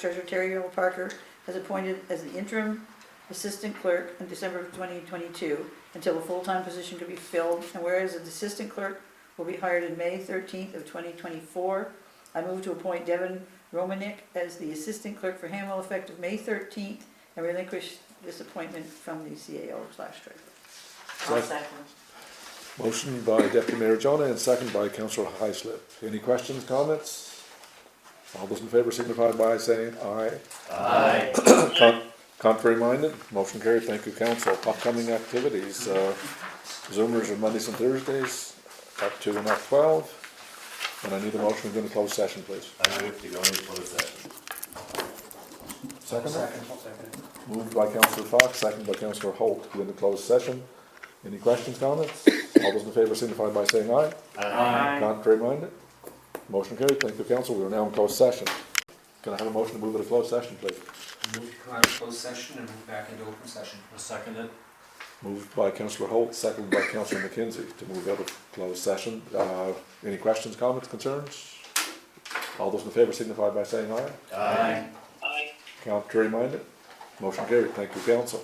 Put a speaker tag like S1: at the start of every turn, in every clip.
S1: Treasurer Terry Earl Parker has appointed as the interim assistant clerk in December of 2022 until a full-time position could be filled, and whereas the assistant clerk will be hired in May 13th of 2024, I move to appoint Devin Romanek as the assistant clerk for Hamwell effective May 13th and relinquish this appointment from the CAO slash treasurer.
S2: I'll
S3: Second.
S2: second.
S3: Motion by Deputy Mayor Jonah and second by Councillor Highslip. Any questions, comments? All those in favor signify by saying aye.
S4: Aye.
S3: Con- Contrary minded, motion carried. Thank you, council. Upcoming activities, uh, Zoomers are Mondays and Thursdays, up to and up twelve. And I need a motion to go into closed session, please.
S4: I move to go into closed session.
S3: Second? Moved by Councillor Fox, second by Councillor Holt, to go into closed session. Any questions, comments? All those in favor signify by saying aye. Contrary minded? Motion carried. Thank you, council. We are now in closed session. Can I have a motion to move into closed session, please?
S5: Move to come out of closed session and move back into open session.
S4: I'll second it.
S3: Moved by Councillor Holt, seconded by Councillor McKenzie to move out of closed session. Uh, any questions, comments, concerns? All those in favor signify by saying aye.
S4: Aye.
S3: Contrary minded? Motion carried. Thank you, council.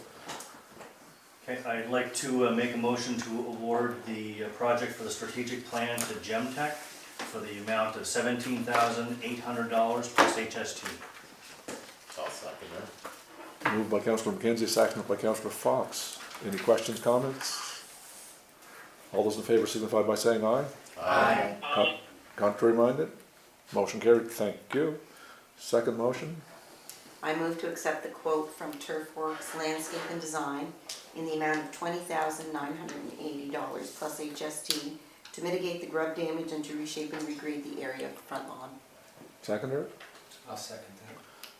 S6: Okay, I'd like to uh, make a motion to award the uh, project for the strategic plan to Gemtech for the amount of seventeen thousand eight hundred dollars plus HS two.
S4: I'll second it.
S3: Moved by Councillor McKenzie, seconded by Councillor Fox. Any questions, comments? All those in favor signify by saying aye.
S4: Aye.
S3: Con- Contrary minded? Motion carried, thank you. Second motion,
S2: I move to accept the quote from Turf Works Landscape and Design in the amount of twenty thousand nine hundred and eighty dollars plus HST to mitigate the grub damage and to reshape and regrade the area of the front lawn.
S3: seconder.
S5: I'll second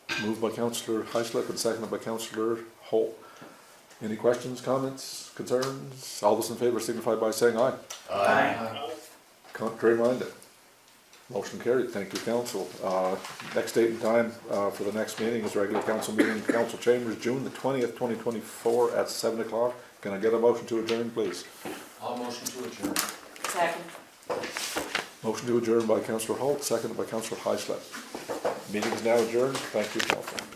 S5: that.
S3: Moved by Councillor Heislip and seconded by Councillor Holt. Any questions, comments, concerns? All those in favor signify by saying aye.
S4: Aye.
S5: Uh,
S3: Contrary minded? Motion carried, thank you, council. Uh, Next date and time uh, for the next meeting is regular council meeting, in council chambers, June the twentieth, twenty twenty-four at seven o'clock. Can I get a motion to adjourn, please?
S5: I'll motion to adjourn.
S2: Second.
S3: Motion to adjourn by Councillor Holt, seconded by Councillor Heislip. Meeting is now adjourned. Thank you, council.